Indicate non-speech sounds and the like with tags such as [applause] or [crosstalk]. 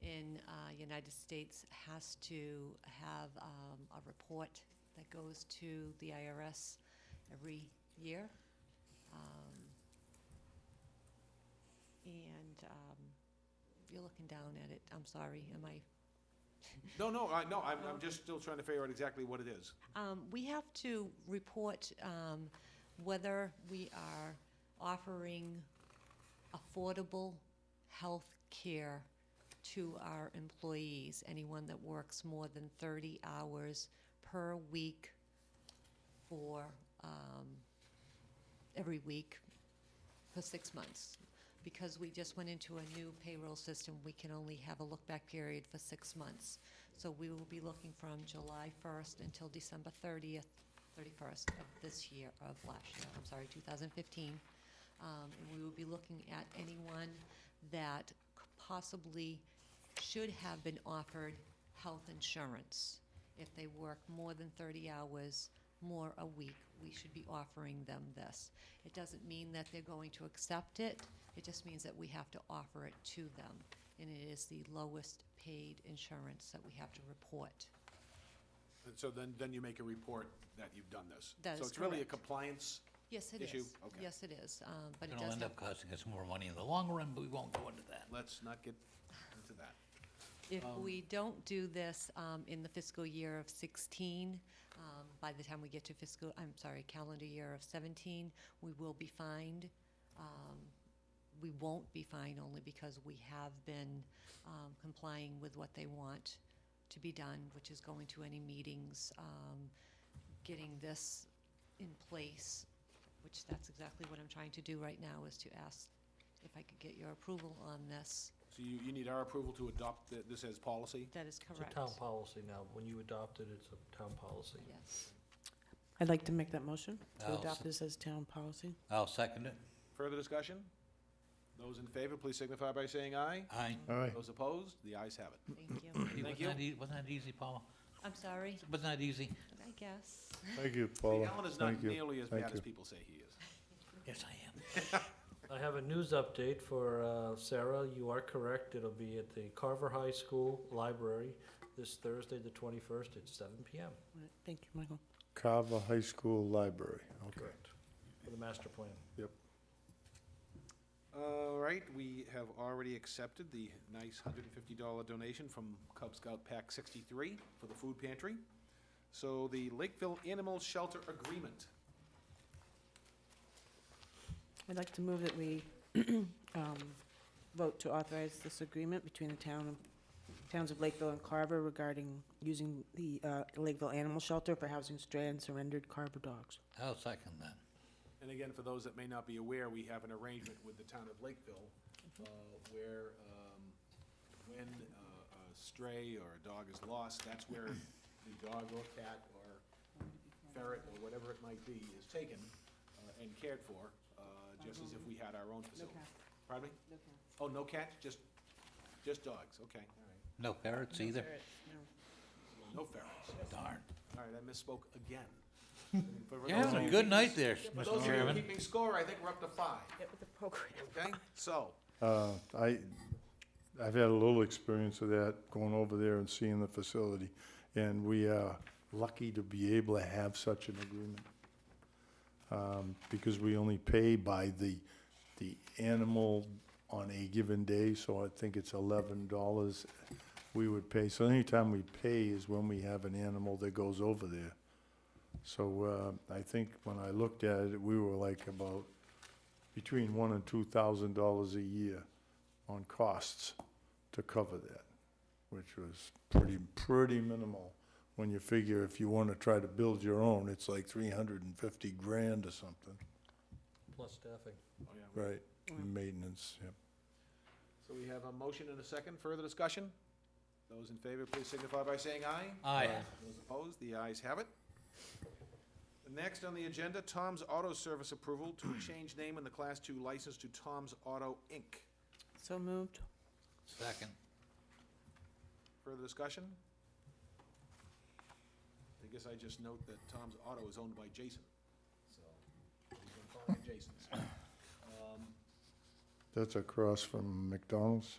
when uh, United States has to have um, a report that goes to the IRS every year. Um, And um, you're looking down at it, I'm sorry, am I? No, no, I, no, I'm, I'm just still trying to figure out exactly what it is. Um, We have to report um, whether we are offering affordable health care to our employees, anyone that works more than 30 hours per week for, um, every week for six months. Because we just went into a new payroll system, we can only have a look-back period for six months. So we will be looking from July 1st until December 30th, 31st of this year, of last year, I'm sorry, 2015. Um, And we will be looking at anyone that c- possibly should have been offered health insurance. If they work more than 30 hours, more a week, we should be offering them this. It doesn't mean that they're going to accept it, it just means that we have to offer it to them. And it is the lowest paid insurance that we have to report. And so then, then you make a report that you've done this. That So is it's really a correct. compliance, Yes, it Issue? is. Okay. Yes, it is, um, but it It'll does end have, up costing us more money in the long run, but we won't go into that. let's not get into that. if we don't do this um, in the fiscal year of 16, um, by the time we get to fiscal, I'm sorry, calendar year of 17, we will be fined. Um, We won't be fined only because we have been um, complying with what they want to be done, which is going to any meetings, um, getting this in place, which that's exactly what I'm trying to do right now, is to ask if I could get your approval on this. So you, you need our approval to adopt th- this as policy? That is It's correct. a town policy now. When you adopt it, it's a town policy. Yes. I'd like to make that motion to I'll adopt sec- this as town policy. I'll second it. Further discussion? Those in favor, please signify by saying aye. Aye. Those opposed, the ayes have it. Thank you. Hey, Thank Wasn't that ea- wasn't that easy, Paula? I'm sorry, Wasn't that easy? I guess. Thank you, See, Paula. Alan is Thank not you. nearly as Thank bad as you. people say he is. Yes, I am. I have a news update for uh, Sarah. You are correct. It'll be at the Carver High School Library this Thursday, the 21st, at 7 PM. Right, Thank you, Michael. Carver High School Library, okay. Correct. For the master plan. All right, we have already accepted the nice hundred and fifty dollar donation from Cub Scout Pack sixty-three for the food pantry. So the Lakeville Animal Shelter Agreement. I'd like to move that we [clears throat] um, vote to authorize this agreement between the town, of- towns of Lakeville and Carver regarding using the uh, Lakeville Animal Shelter for housing stray and surrendered Carver dogs. I'll second that. And again, for those that may not be aware, we have an arrangement with the town of Lakeville, uh, where, um, when uh, a stray or a dog is lost, that's where the dog or cat or ferret or whatever it might be is taken uh, and cared for, uh, just as if we had our own facility. Pardon me? Oh, no cats, just, just dogs, okay, all No ferrets either? right. No ferrets. Darn. All right, I misspoke again. For You're those having of a you- good night there, For those Mr. of you Chairman. keeping score, I think we're up to five, okay? So, Uh, I, I've had a little experience of that, going over there and seeing the facility. And we are lucky to be able to have such an agreement. Um, Because we only pay by the, the animal on a given day, so I think it's eleven dollars we would pay. So anytime we pay is when we have an animal that goes over there. So uh, I think when I looked at it, we were like about between one and two thousand dollars a year on costs to cover that, which was pretty, pretty minimal. When you figure if you want to try to build your own, it's like three hundred and fifty grand or something, Plus staffing. oh yeah, we- right? Maintenance, yep. So we have a motion and a second, further discussion? Those in favor, please signify by saying aye. Aye. Those opposed, the ayes have it. Next on the agenda, Tom's Auto Service approval to change name in the Class Two license to Tom's Auto, Inc. So moved. Second. Further discussion? I guess I just note that Tom's Auto is owned by Jason, so we're gonna call it Jason's. Um, That's across from McDonald's.